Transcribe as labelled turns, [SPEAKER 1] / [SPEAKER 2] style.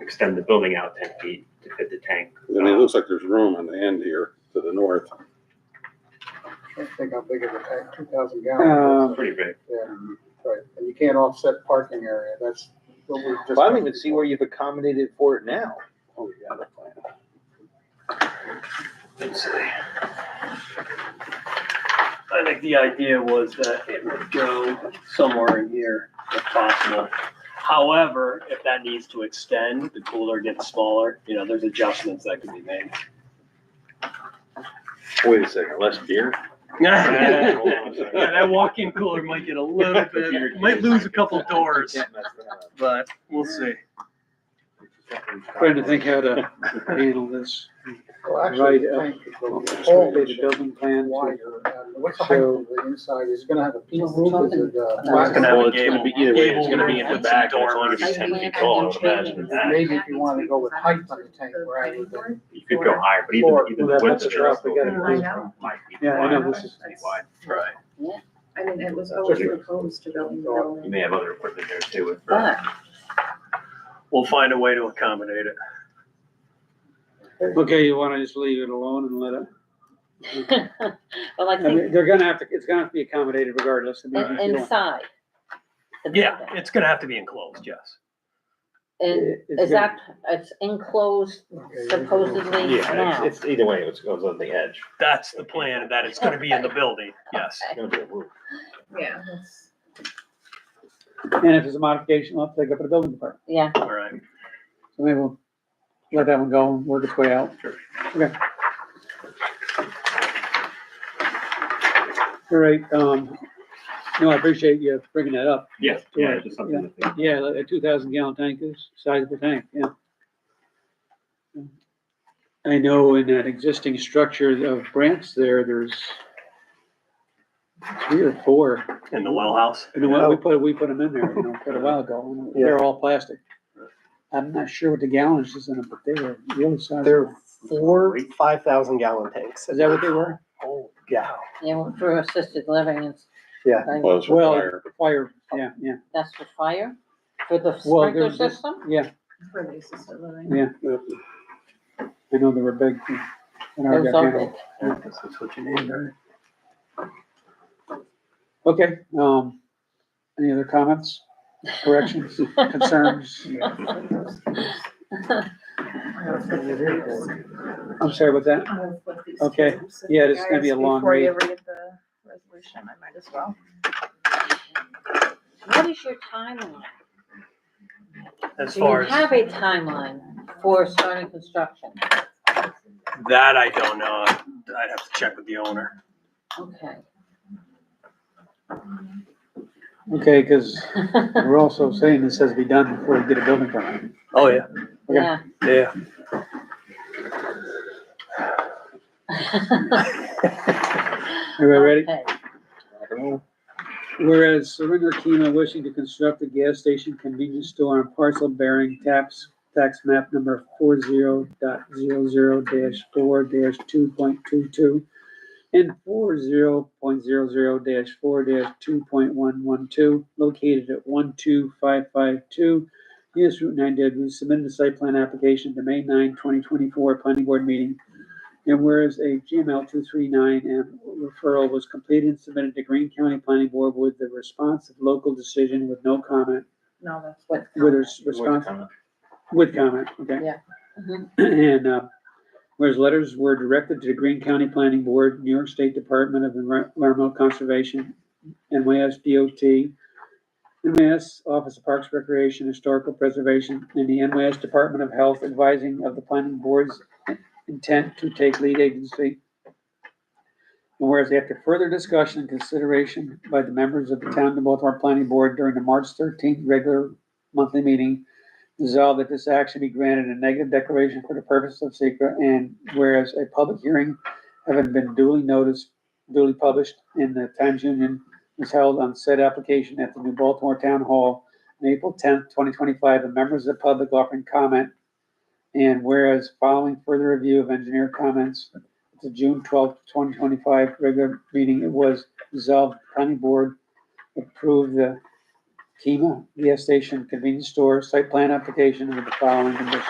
[SPEAKER 1] extend the building out ten feet to fit the tank.
[SPEAKER 2] I mean, it looks like there's room on the end here to the north.
[SPEAKER 3] Trying to think how big of a tank, two thousand
[SPEAKER 1] It's
[SPEAKER 3] gallon.
[SPEAKER 1] Pretty big.
[SPEAKER 3] Yeah, right, and you can't offset parking area, that's what we just.
[SPEAKER 4] Well, I don't even see where you've accommodated for it now.
[SPEAKER 2] Oh, yeah, the plan.
[SPEAKER 5] Let's see. I think the idea was that it would go somewhere in here if possible. However, if that needs to extend, the cooler gets smaller, you know, there's adjustments that can be made.
[SPEAKER 4] Wait a second, less beer?
[SPEAKER 5] Yeah, that walk-in cooler might get a little bit, might lose a couple doors, but we'll see.
[SPEAKER 6] Trying to think how to handle this.
[SPEAKER 3] Well, actually, the
[SPEAKER 6] Right,
[SPEAKER 3] tank is going to be
[SPEAKER 6] Updated building plan.
[SPEAKER 3] wider. And What's the height of the inside, is it gonna have a peak roof, is it,
[SPEAKER 7] It's
[SPEAKER 3] uh,
[SPEAKER 7] gonna
[SPEAKER 4] Well, it's gonna be, either way, it's gonna be in the back,
[SPEAKER 1] Gable
[SPEAKER 4] it's only
[SPEAKER 1] roof.
[SPEAKER 4] gonna be ten feet
[SPEAKER 7] Maybe
[SPEAKER 4] tall, I would imagine.
[SPEAKER 3] maybe if you wanna go with height on the tank, rather than
[SPEAKER 1] You could go higher, but even,
[SPEAKER 3] Or-
[SPEAKER 1] even
[SPEAKER 6] Well, that's
[SPEAKER 1] with
[SPEAKER 6] the
[SPEAKER 1] the
[SPEAKER 6] drop, we gotta
[SPEAKER 7] raise them.
[SPEAKER 1] Might be
[SPEAKER 6] Yeah, I know
[SPEAKER 1] wide,
[SPEAKER 6] this is-
[SPEAKER 1] might be wide.
[SPEAKER 4] Right.
[SPEAKER 7] I mean, it was always proposed to building the
[SPEAKER 1] You
[SPEAKER 7] building,
[SPEAKER 1] may have other equipment there too. with-
[SPEAKER 7] but
[SPEAKER 5] We'll find a way to accommodate it.
[SPEAKER 6] Okay, you wanna just leave it alone and let it,
[SPEAKER 8] Well, I
[SPEAKER 6] I mean, uh,
[SPEAKER 8] think
[SPEAKER 6] they're gonna have to, it's gonna have to be accommodated regardless. I mean,
[SPEAKER 8] in-
[SPEAKER 6] you don't-
[SPEAKER 8] inside. the
[SPEAKER 5] Yeah,
[SPEAKER 8] building.
[SPEAKER 5] it's gonna have to be enclosed, yes.
[SPEAKER 8] And
[SPEAKER 6] it- it's
[SPEAKER 8] is
[SPEAKER 6] gonna-
[SPEAKER 8] that, it's enclosed
[SPEAKER 3] Okay.
[SPEAKER 8] supposedly
[SPEAKER 4] Yeah,
[SPEAKER 8] now?
[SPEAKER 4] it's, it's either way, it goes on the edge.
[SPEAKER 5] That's the plan, that it's gonna be in the building, yes.
[SPEAKER 4] It's gonna be a roof.
[SPEAKER 7] yeah, that's-
[SPEAKER 6] And if it's a modification, I'll take up to the building department.
[SPEAKER 8] Yeah,
[SPEAKER 5] All right.
[SPEAKER 6] So maybe we'll let that one go and work its way out. Okay. All right, um, no, I appreciate you bringing that up.
[SPEAKER 1] Yeah, yeah, it's just something to think.
[SPEAKER 6] Yeah, like a two thousand gallon tank is size of a tank, yeah. I know in that existing structure of Brant's there, there's three or four,
[SPEAKER 5] In the well house.
[SPEAKER 6] and we we put, we put them in there, you know, quite a while ago, and they're all plastic. I'm not sure what the gallons is in them, but they were really sizable.
[SPEAKER 9] They're four five thousand gallon tanks.
[SPEAKER 6] Is that what they were?
[SPEAKER 9] Oh, yeah.
[SPEAKER 8] you know, for assisted living, it's.
[SPEAKER 9] Yeah.
[SPEAKER 8] like,
[SPEAKER 2] Well, it's
[SPEAKER 6] Well,
[SPEAKER 2] required.
[SPEAKER 6] Fire, yeah, yeah,
[SPEAKER 8] That's for fire, for the
[SPEAKER 6] Well, they're-
[SPEAKER 8] sprinkler system?
[SPEAKER 6] yeah,
[SPEAKER 7] for the assisted living.
[SPEAKER 6] yeah, I know they were big. when I
[SPEAKER 8] Those
[SPEAKER 6] got
[SPEAKER 8] are
[SPEAKER 6] here.
[SPEAKER 8] big.
[SPEAKER 5] That's what you need, right?
[SPEAKER 6] Okay, um, any other comments, corrections, concerns? I'm sorry, what's that? Okay. Yeah, it's gonna be a long
[SPEAKER 7] Before you
[SPEAKER 6] read.
[SPEAKER 7] read the resolution, I might as well.
[SPEAKER 8] What is your timeline?
[SPEAKER 5] As
[SPEAKER 8] Do you
[SPEAKER 5] far as
[SPEAKER 8] have a timeline for starting construction?
[SPEAKER 5] that, I don't know. I'd have to check with the owner.
[SPEAKER 8] Okay.
[SPEAKER 6] Okay, because we're also saying this has to be done before you get a building permit.
[SPEAKER 5] Oh, yeah,
[SPEAKER 8] Yeah.
[SPEAKER 5] yeah.
[SPEAKER 6] Everybody ready?
[SPEAKER 8] Okay.
[SPEAKER 6] Whereas Serena Kima wishing to construct a gas station convenience store on parcel bearing tax, tax map number four zero dot zero zero dash four dash two point two two and four zero point zero zero dash four dash two point one one two, located at one two five five two, US Route nine Deadwood, submitted a site plan application to May 9, 2024 planning board meeting and whereas a GML two three nine M referral was completed and submitted to Green County Planning Board with the response of local decision with no comment,
[SPEAKER 8] No, that's what.
[SPEAKER 6] with a s- response, with comment, okay?
[SPEAKER 8] Yeah.
[SPEAKER 6] And, uh, whereas letters were directed to the Green County Planning Board, New York State Department of Envi- Environmental Conservation, NYS DOT, NYS Office of Parks Recreation, Historical Preservation, and the NYS Department of Health advising of the planning board's intent to take lead agency. And Whereas after further discussion and consideration by the members of the town of Baltimore Planning Board during the March thirteenth regular monthly meeting, Resolved that this action be granted a negative declaration for the purpose of secret, and whereas a public hearing having been duly noticed, duly published in the Times Union was held on said application at the New Baltimore Town Hall on April tenth, twenty twenty-five, and members of the public offering comment. And whereas following further review of engineer comments at the June twelfth, twenty twenty-five regular meeting, it was resolved, the planning board approved the Kima, gas station, convenience store, site plan application with the following conditions.